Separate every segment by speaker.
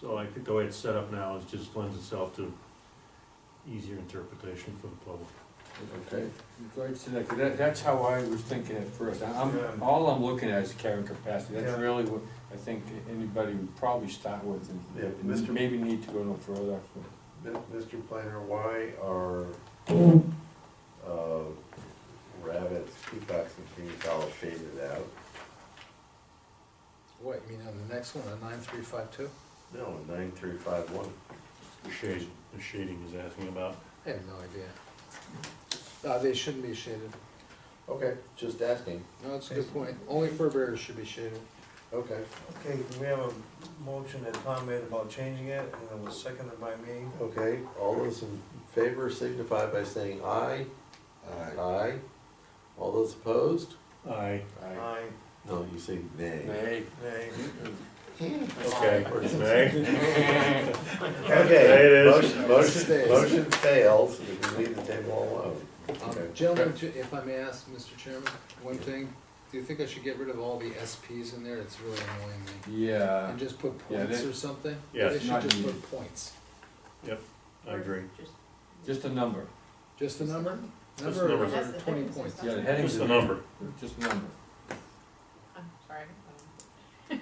Speaker 1: So I think the way it's set up now is just lends itself to easier interpretation for the public.
Speaker 2: Okay, great, so that, that- that's how I was thinking at first, I- I'm, all I'm looking at is carrying capacity, that's
Speaker 3: Yeah.
Speaker 2: really what I think anybody would probably start with and-
Speaker 3: Yeah,
Speaker 2: and
Speaker 3: Mr.
Speaker 2: maybe need to go no further.
Speaker 3: Mr. Planner, why are uh, rabbits, peacocks, and things all shaded out?
Speaker 4: What, you mean on the next one, on nine three five two?
Speaker 3: No, nine three five one.
Speaker 1: The shade, the shading is asking about.
Speaker 4: I have no idea. Uh, they shouldn't be shaded.
Speaker 3: Okay, just asking.
Speaker 4: No, that's a good point. Only fur bearers should be shaded.
Speaker 3: Okay,
Speaker 5: Okay, we have a motion that Tom made about changing it, and it was seconded by me.
Speaker 3: okay, all those in favor signify by saying aye. Aye. Aye. All those opposed?
Speaker 1: I,
Speaker 5: Aye,
Speaker 3: No, you say nay.
Speaker 2: Hey,
Speaker 5: nay.
Speaker 1: okay,
Speaker 3: Or is it-
Speaker 1: nay, There it
Speaker 3: Okay,
Speaker 1: is.
Speaker 3: motion, motion,
Speaker 4: Stays.
Speaker 3: motion fails, you can leave the table alone.
Speaker 4: Um,
Speaker 3: Okay.
Speaker 4: Gentlemen, ju- if I may ask, Mr. Chairman, one thing, do you think I should get rid of all the SPs in there? It's really annoying me.
Speaker 2: yeah,
Speaker 4: And just put
Speaker 2: Uh, Yeah,
Speaker 4: points
Speaker 2: they-
Speaker 4: or something?
Speaker 1: Yes.
Speaker 4: They should
Speaker 2: Not
Speaker 4: just
Speaker 2: needed.
Speaker 4: put points.
Speaker 1: I agree.
Speaker 2: just a number,
Speaker 4: Just the number?
Speaker 1: Just
Speaker 4: Number
Speaker 1: number.
Speaker 4: or
Speaker 6: That's the
Speaker 4: twenty
Speaker 6: difference,
Speaker 4: points?
Speaker 6: it's
Speaker 2: yeah, the headings.
Speaker 1: Just
Speaker 2: are
Speaker 1: the number.
Speaker 2: Just a number.
Speaker 6: I'm sorry.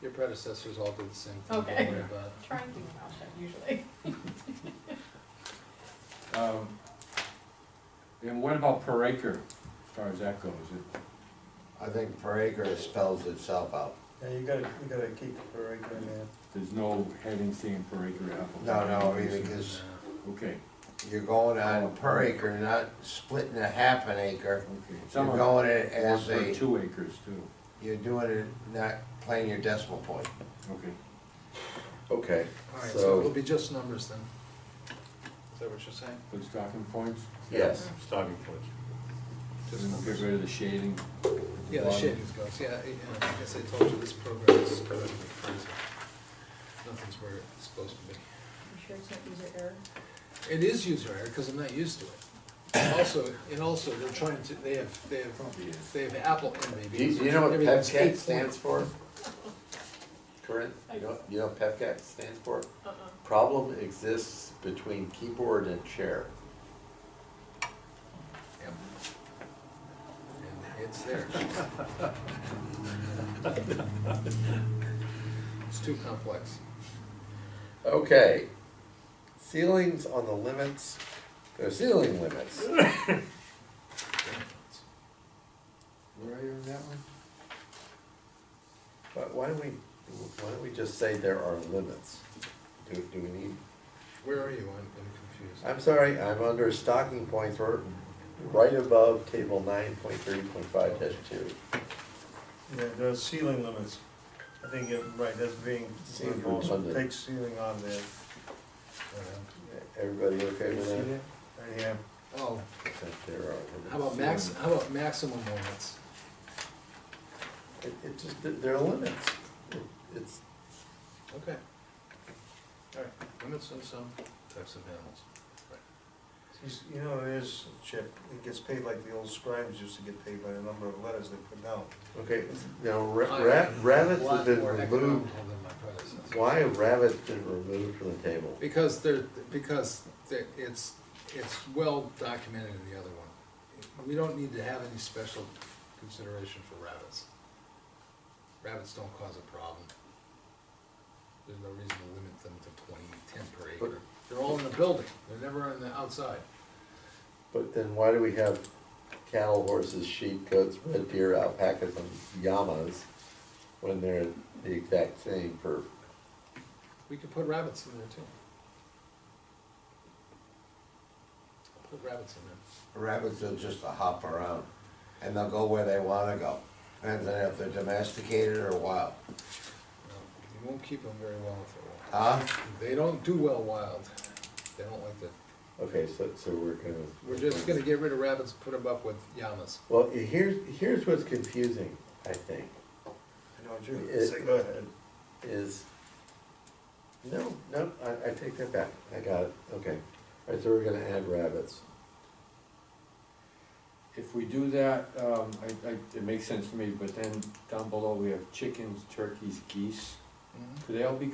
Speaker 4: Your predecessors all did the same thing. don't
Speaker 6: Okay.
Speaker 4: worry about it.
Speaker 6: I'm Trying to do mouse shut usually.
Speaker 2: Um, And what about per acre, as far as that goes? It-
Speaker 7: I think per acre spells itself out.
Speaker 5: Yeah, you gotta, you gotta keep it right there, man.
Speaker 2: There's no heading thing per acre application?
Speaker 7: No, no, I mean, because
Speaker 2: Okay,
Speaker 7: you're going on per acre, not splitting a half an acre.
Speaker 2: okay.
Speaker 7: You're
Speaker 2: Some are
Speaker 7: going it as
Speaker 2: one per
Speaker 7: a,
Speaker 2: two acres too,
Speaker 7: you're doing it, not playing your decimal point.
Speaker 2: okay.
Speaker 3: Okay,
Speaker 4: All right, so
Speaker 3: So-
Speaker 4: it'll be just numbers then. Is that what you're saying?
Speaker 2: For the stocking points?
Speaker 3: yes,
Speaker 1: Stopping point.
Speaker 2: Just get rid of the shading. at the
Speaker 4: Yeah, the
Speaker 2: bottom.
Speaker 4: shavings goes, yeah, I- and I guess I told you this program is kind of crazy. Nothing's where it's supposed to be.
Speaker 6: You sure it's not user error?
Speaker 4: It is user error, because I'm not used to it. And Also, and also, they're trying to, they have, they have, they have Apple in me.
Speaker 3: do you, you know what PEPCAT stands for? Corinne, you know, you know what PEPCAT stands for?
Speaker 6: Uh-uh.
Speaker 3: Problem exists between keyboard and chair.
Speaker 4: Yep. And it's there. It's too complex.
Speaker 3: Okay, ceilings on the limits, there are ceiling limits.
Speaker 7: Where are you on that one?
Speaker 3: But why don't we, why don't we just say there are limits? Do, do we need,
Speaker 4: Where are you? I'm, I'm confused.
Speaker 3: I'm sorry, I'm under stocking points, we're right above table nine point three point five dash two.
Speaker 5: Yeah, the ceiling limits, I think, you're right, that's being,
Speaker 3: Ceiling
Speaker 5: also
Speaker 3: limit.
Speaker 5: take ceiling on there.
Speaker 3: Everybody okay with that?
Speaker 5: Right here.
Speaker 4: Oh,
Speaker 3: That there are limits.
Speaker 4: how about max, how about maximum moments?
Speaker 3: It, it just, there- there are limits. It- It's,
Speaker 4: Okay. All right, limits on some types of animals.
Speaker 5: He's- You know, it is, Chip, it gets paid like the old scribes used to get paid by the number of letters they put down.
Speaker 3: okay, now ra- ra- rabbits have been
Speaker 4: A lot more
Speaker 3: removed,
Speaker 4: economical than my predecessor.
Speaker 3: why have rabbits been removed from the table?
Speaker 4: Because they're, because they're- it's, it's well documented in the other one. We don't need to have any special consideration for rabbits. Rabbits don't cause a problem. There's no reason to limit them to twenty, ten per acre. They're all in the building, they're never on the outside.
Speaker 3: But then why do we have cattle, horses, sheep, goats, red deer, alpacas, and llamas when they're the exact same for,
Speaker 4: We could put rabbits in there too. Put rabbits in there.
Speaker 7: Rabbits will just hop around, and they'll go where they wanna go. Depends on if they're domesticated or wild.
Speaker 4: No, You won't keep them very well if they're wild.
Speaker 7: Huh?
Speaker 4: They don't do well wild. They don't like that.
Speaker 3: okay, so, so we're gonna.
Speaker 4: We're just gonna get rid of rabbits, put them up with llamas.
Speaker 3: Well, here's, here's what's confusing, I think,
Speaker 5: I know, Drew,
Speaker 3: It-
Speaker 5: say, go ahead.
Speaker 3: is, no, no, I, I take that back, I got it, okay. All right, so we're gonna add rabbits.
Speaker 2: If we do that, um, I, I, it makes sense to me, but then down below we have chickens, turkeys, geese.
Speaker 4: Mhm.
Speaker 2: Could they all be